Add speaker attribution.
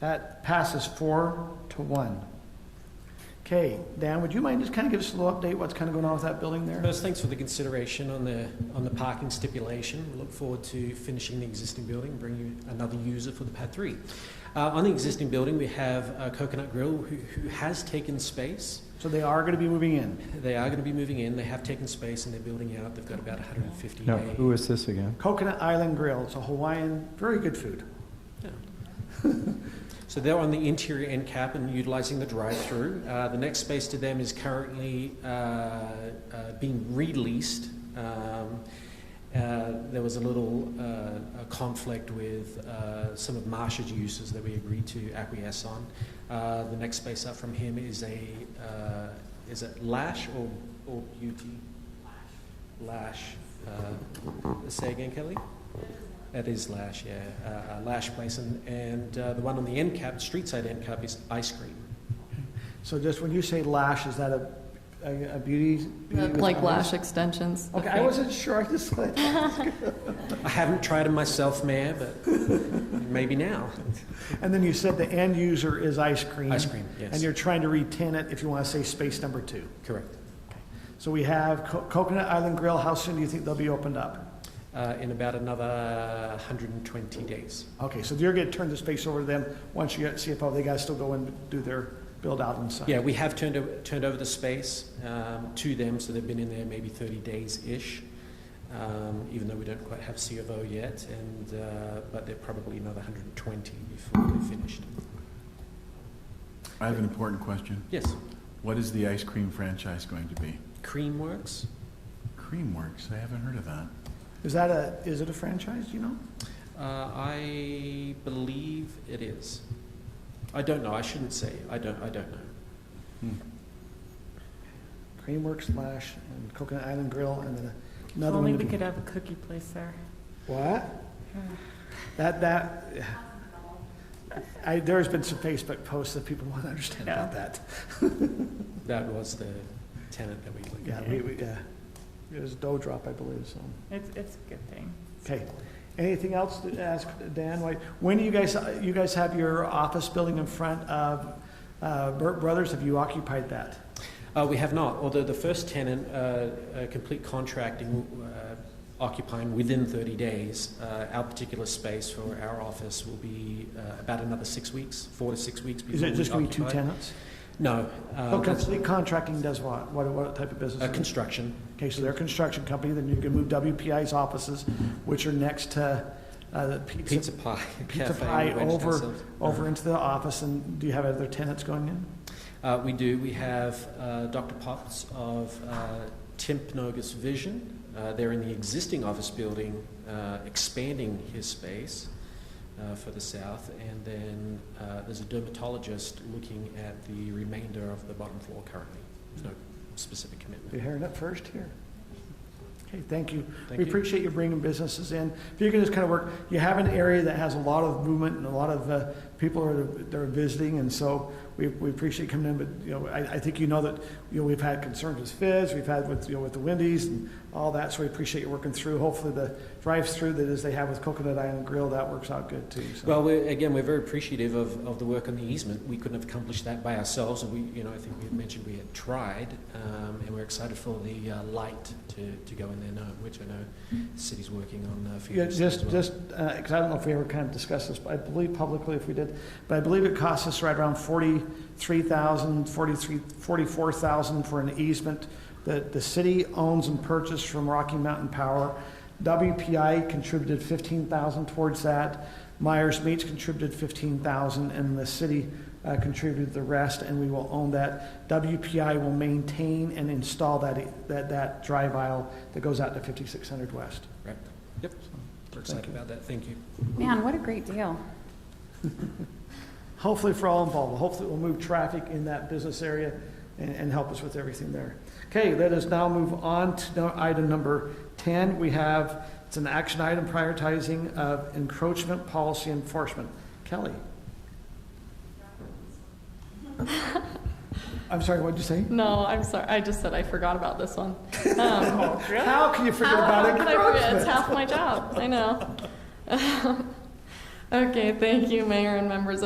Speaker 1: That passes four to one. Okay, Dan, would you mind just kind of give us a little update, what's kind of going on with that building there?
Speaker 2: First, thanks for the consideration on the, on the parking stipulation. We look forward to finishing the existing building and bringing you another user for the pad three. Uh, on the existing building, we have uh, Coconut Grill, who, who has taken space.
Speaker 1: So they are going to be moving in.
Speaker 2: They are going to be moving in. They have taken space and they're building out. They've got about 150.
Speaker 3: No,
Speaker 2: a-
Speaker 3: who is this again?
Speaker 1: Coconut Island Grill, it's a Hawaiian, very good food.
Speaker 2: So they're on the interior end cap and utilizing the drive-through. Uh, the next space to them is currently uh, uh, being released. Um, uh, there was a little uh, a conflict with uh, some of Marsha's uses that we agreed to acquiesce on. Uh, the next space up from him is a uh, is it Lash or or Beauty? Lash. Uh, say again, Kelly. That is Lash, yeah, uh, uh, Lash Place, and, and uh, the one on the end cap, street side end cap, is Ice Cream.
Speaker 1: So just when you say lash, is that a, a a beauty? beauty with
Speaker 4: Like
Speaker 1: eyes?
Speaker 4: lash extensions.
Speaker 1: Okay, I wasn't sure, I just,
Speaker 2: I haven't tried it myself, Mayor, but maybe now.
Speaker 1: and then you said the end user is ice cream.
Speaker 2: Ice cream, yes.
Speaker 1: And you're trying to retain it if you want to say space number two.
Speaker 2: Correct.
Speaker 1: So we have Co- Coconut Island Grill, how soon do you think they'll be opened up?
Speaker 2: Uh, in about another 120 days.
Speaker 1: Okay, so you're going to turn the space over to them, once you get CFO, they got to still go and do their build out inside.
Speaker 2: Yeah, we have turned, o- turned over the space um, to them, so they've been in there maybe 30 days-ish, um, even though we don't quite have C of O yet, and, uh, but they're probably another 120 before they're finished.
Speaker 5: I have an important question.
Speaker 2: Yes,
Speaker 5: What is the ice cream franchise going to be?
Speaker 2: Creamworks?
Speaker 5: Creamworks, I haven't heard of that.
Speaker 1: Is that a, is it a franchise, do you know?
Speaker 2: Uh, I believe it is. I don't know. I shouldn't say. I don't. I don't know.
Speaker 1: Creamworks Lash and Coconut Island Grill, and then
Speaker 6: If
Speaker 1: another
Speaker 6: only
Speaker 1: one. to
Speaker 6: we
Speaker 1: be-
Speaker 6: could have a cookie place there.
Speaker 1: What? That, that, I, there's been some Facebook posts that people want to understand about that.
Speaker 2: That was the tenant that we looked
Speaker 1: Yeah,
Speaker 2: at.
Speaker 1: we, we, yeah. It was dough drop, I believe, so.
Speaker 6: It's, it's a good thing.
Speaker 1: Okay. Anything else to ask Dan? Like, When do you guys, you guys have your office building in front of, uh, Burt Brothers? Have you occupied that?
Speaker 2: Uh, we have not. Although the first tenant, uh, uh, complete contracting, uh, occupying within 30 days, uh, our particular space for our office will be uh, about another six weeks, four to six weeks.
Speaker 1: Is
Speaker 2: before
Speaker 1: it
Speaker 2: we
Speaker 1: just going to be two
Speaker 2: occupy.
Speaker 1: tenants?
Speaker 2: No. Uh,
Speaker 1: Oh, complete contracting does what? What, what type of business?
Speaker 2: uh,
Speaker 1: is it?
Speaker 2: construction.
Speaker 1: Okay, so they're a construction company, then you can move WPI's offices, which are next to, uh, the
Speaker 2: Pizza
Speaker 1: pizza,
Speaker 2: pie.
Speaker 1: pizza
Speaker 2: cafe,
Speaker 1: pie
Speaker 2: we wedged
Speaker 1: over,
Speaker 2: ourselves.
Speaker 1: over into the office, and do you have other tenants going in?
Speaker 2: Uh, we do. We have uh, Dr. Potts of uh, Timpnogus Vision. Uh, they're in the existing office building, uh, expanding his space uh, for the south. And then uh, there's a dermatologist looking at the remainder of the bottom floor currently. There's no specific
Speaker 1: You're
Speaker 2: commitment.
Speaker 1: hearing it first here. Okay, thank you.
Speaker 2: Thank
Speaker 1: We
Speaker 2: you.
Speaker 1: appreciate you bringing businesses in. If you can just kind of work, you have an area that has a lot of movement and a lot of uh, people are, they're visiting, and so we, we appreciate you coming in, but, you know, I, I think you know that, you know, we've had concerns with Fizz, we've had with, you know, with the Wendy's and all that, so we appreciate you working through. Hopefully the drive-through that is they have with Coconut Island Grill, that works out good too, so.
Speaker 2: Well, we're, again, we're very appreciative of, of the work on the easement. We couldn't have accomplished that by ourselves, and we, you know, I think we had mentioned we had tried, um, and we're excited for the uh, light to, to go in there now, which I know the city's working on uh, for
Speaker 1: Yeah,
Speaker 2: years as
Speaker 1: just,
Speaker 2: well.
Speaker 1: just, because I don't know if we ever kind of discussed this, but I believe publicly if we did, but I believe it cost us right around forty-three thousand, forty-three, forty-four thousand for an easement that the city owns and purchased from Rocky Mountain Power. WPI contributed fifteen thousand towards that. Myers Meats contributed fifteen thousand, and the city uh, contributed the rest, and we will own that. WPI will maintain and install that, that, that drive aisle that goes out to fifty-six hundred west.
Speaker 2: Right. Yep. We're excited about that. Thank you.
Speaker 7: Man, what a great deal.
Speaker 1: hopefully for all involved, hopefully it will move traffic in that business area and, and help us with everything there. Okay, let us now move on to now item number ten. We have, it's an action item prioritizing of encroachment policy enforcement. Kelly? I'm sorry, what'd you say?
Speaker 4: No, I'm sorry. I just said I forgot about this one. Um,
Speaker 1: How can you forget about
Speaker 4: How could I forget? It's
Speaker 1: encroachment?
Speaker 4: half my job. I know. okay, thank you, Mayor and members of